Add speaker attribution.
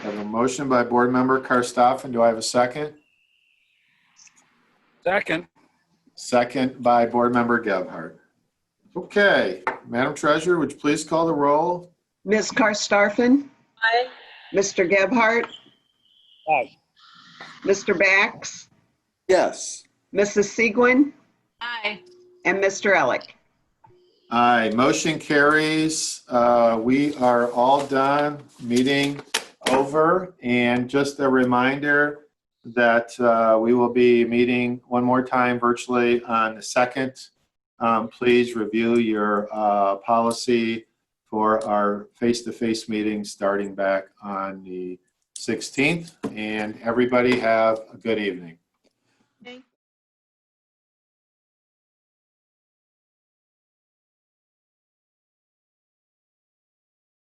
Speaker 1: I Have a motion by Board Member Karstoffen. Do I have a second?
Speaker 2: Second,
Speaker 1: Second by Board Member Gebhardt. Okay, Madam Treasurer, would you please call the roll?
Speaker 3: Ms. Karstafen?
Speaker 4: Aye.
Speaker 3: Mr. Gebhardt?
Speaker 2: Aye.
Speaker 3: Mr. Bax?
Speaker 1: Yes.
Speaker 3: Mrs. Segwin?
Speaker 4: Aye.
Speaker 3: And Mr. Elick?
Speaker 1: Aye, motion carries. Uh, We are all done, meeting over. And just a reminder that uh, we will be meeting one more time virtually on the 2nd. Um, Please review your uh, policy for our face-to-face meeting starting back on the 16th. And everybody have a good evening.
Speaker 4: Thank